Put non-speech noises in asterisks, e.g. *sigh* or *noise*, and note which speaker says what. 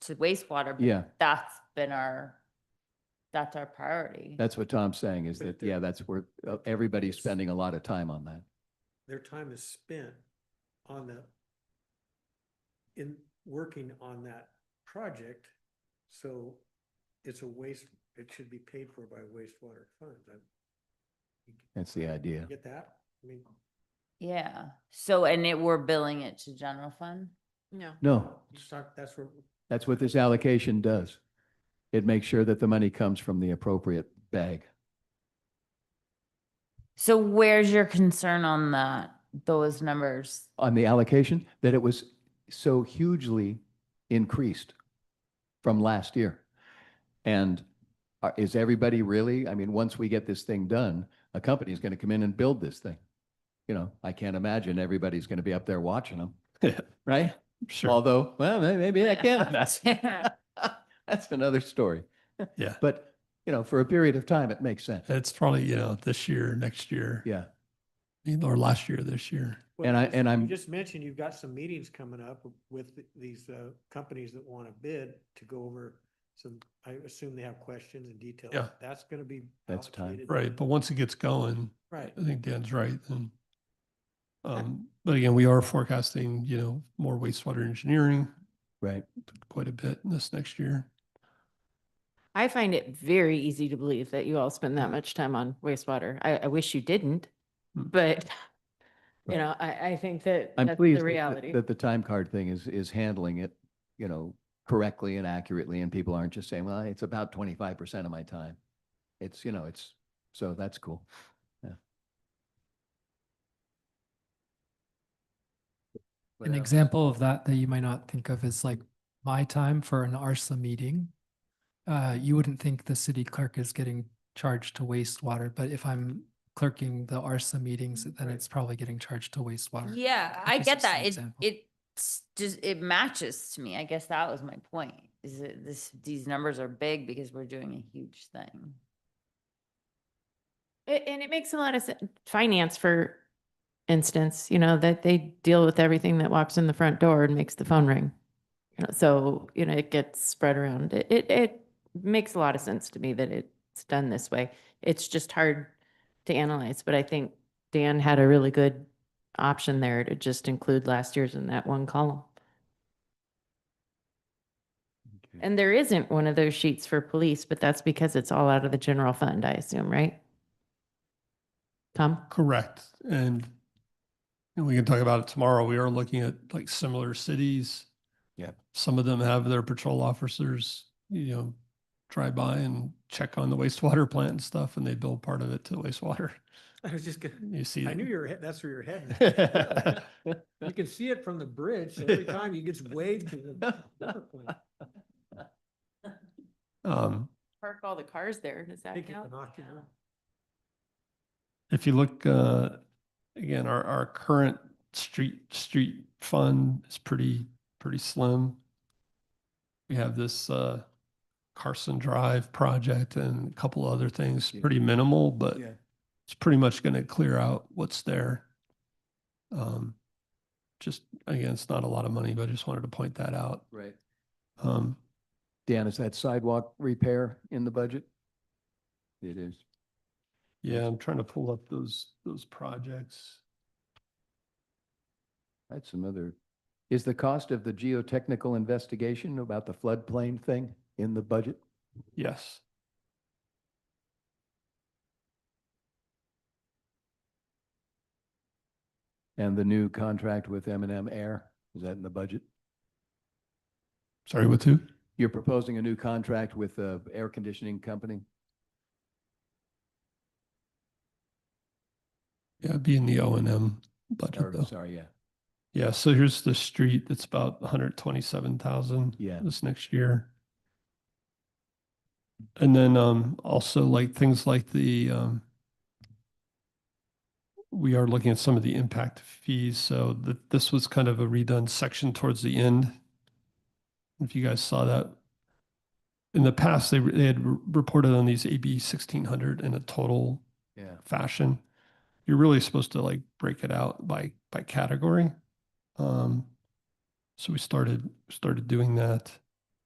Speaker 1: to wastewater. but
Speaker 2: Yeah,
Speaker 1: That's been our, that's our priority.
Speaker 2: that's what Tom's saying is
Speaker 3: But
Speaker 2: that,
Speaker 3: they're-
Speaker 2: yeah, that's where uh, everybody's spending a lot of time on that.
Speaker 3: their time is spent on the, in working on that project. So it's a waste, it should be paid for by wastewater funds. I- you
Speaker 2: That's the idea.
Speaker 3: Get that? I mean,
Speaker 1: Yeah. So, and it, we're billing it to general fund?
Speaker 4: No.
Speaker 2: No,
Speaker 3: it's not- that's where,
Speaker 2: that's what this allocation does. It makes sure that the money comes from the appropriate bag.
Speaker 1: So where's your concern on that, those numbers?
Speaker 2: on the allocation that it was so hugely increased from last year. And are- is everybody really, I mean, once we get this thing done, a company's going to come in and build this thing. You know, I can't imagine everybody's going to be up there watching them, right?
Speaker 5: Sure,
Speaker 2: Although, well, may- maybe I
Speaker 5: *laughs*
Speaker 2: can.
Speaker 5: that's,
Speaker 1: *laughs*
Speaker 2: That's another story.
Speaker 5: yeah,
Speaker 2: But, you know, for a period of time, it makes sense.
Speaker 5: it's probably, you know, this year, next year,
Speaker 2: Yeah.
Speaker 5: or last year, this year.
Speaker 3: well,
Speaker 2: And I-
Speaker 3: you just-
Speaker 2: and
Speaker 3: you
Speaker 2: I'm-
Speaker 3: Just mentioned you've got some meetings coming up with th- these uh, companies that want to bid to go over some, I assume they have questions and details.
Speaker 5: Yeah.
Speaker 3: That's going to be.
Speaker 2: That's time.
Speaker 3: allocated.
Speaker 5: Right, but once it gets going,
Speaker 3: Right.
Speaker 5: I think Dan's right, and. Um, but again, we are forecasting, you know, more wastewater engineering
Speaker 2: Right.
Speaker 5: quite a bit this next year.
Speaker 4: I find it very easy to believe that you all spend that much time on wastewater. I, I wish you didn't,
Speaker 5: Hmm.
Speaker 4: but *laughs*
Speaker 2: Right.
Speaker 4: you know, I, I think that
Speaker 2: I'm
Speaker 4: that's
Speaker 2: pleased
Speaker 4: the
Speaker 2: that-
Speaker 4: reality.
Speaker 2: that, that the time card thing is, is handling it, you know, correctly and accurately. And people aren't just saying, well, it's about twenty-five percent of my time. It's, you know, it's, so that's cool. Yeah. What
Speaker 6: An
Speaker 2: else?
Speaker 6: example of that that you might not think of is like my time for an ARSA meeting. Uh, you wouldn't think the city clerk is getting charged to wastewater, but if I'm clerking the ARSA meetings, then
Speaker 3: Right.
Speaker 6: it's probably getting charged to wastewater.
Speaker 1: Yeah, I
Speaker 6: That's
Speaker 1: get
Speaker 6: just an
Speaker 1: that. It,
Speaker 6: example.
Speaker 1: it just, it matches to me. I guess that was my point. Is that this, these numbers are big because we're doing a huge thing.
Speaker 4: A- And it makes a lot of sense. Finance, for instance, you know, that they deal with everything that walks in the front door and makes the phone ring. You know, so, you know, it gets spread around. It, it, it makes a lot of sense to me that it's done this way. It's just hard to analyze, but I think Dan had a really good option there to just include last year's in that one column.
Speaker 2: Okay.
Speaker 4: And there isn't one of those sheets for police, but that's because it's all out of the general fund, I assume, right? Tom?
Speaker 5: Correct, and. And we can talk about it tomorrow. We are looking at like similar cities.
Speaker 2: Yep.
Speaker 5: Some of them have their patrol officers, you know, drive by and check on the wastewater plant and stuff, and they bill part of it to wastewater.
Speaker 3: *laughs*
Speaker 5: *laughs*
Speaker 3: I was just gonna.
Speaker 5: You see.
Speaker 3: I knew
Speaker 5: them.
Speaker 3: you were, he- that's where you're heading. You can see it from the bridge every time you gets waved to the. water plant.
Speaker 5: Um,
Speaker 4: Park all the cars there, does
Speaker 3: I
Speaker 4: that
Speaker 3: think it's
Speaker 4: count?
Speaker 3: an ocular.
Speaker 5: if you look, uh, again, our, our current street, street fund is pretty, pretty slim. We have this, uh, Carson Drive project and a couple other things,
Speaker 2: Yeah.
Speaker 5: pretty minimal, but
Speaker 2: Yeah.
Speaker 5: it's pretty much going to clear out what's there. Um, just, again, it's not a lot of money, but I just wanted to point that out.
Speaker 2: Right.
Speaker 5: Um,
Speaker 2: Dan, is that sidewalk repair in the budget? It is.
Speaker 5: yeah, I'm trying to pull up those, those projects.
Speaker 2: That's some other, is the cost of the geotechnical investigation about the floodplain thing in the budget?
Speaker 5: Yes.
Speaker 2: And the new contract with M and M Air, is that in the budget?
Speaker 5: Sorry, with who?
Speaker 2: You're proposing a new contract with a air conditioning company?
Speaker 5: Yeah, it'd be in the O and M budget
Speaker 2: Or,
Speaker 5: though.
Speaker 2: sorry, yeah,
Speaker 5: Yeah, so here's the street that's about hundred twenty-seven thousand
Speaker 2: yeah.
Speaker 5: this next year. And then um also like things like the um we are looking at some of the impact fees, so that this was kind of a redone section towards the end. If you guys saw that. In the past, they they had re- reported on these AB sixteen hundred in a total
Speaker 2: Yeah,
Speaker 5: fashion. You're really supposed to like break it out by by category. Um, so we started started doing that.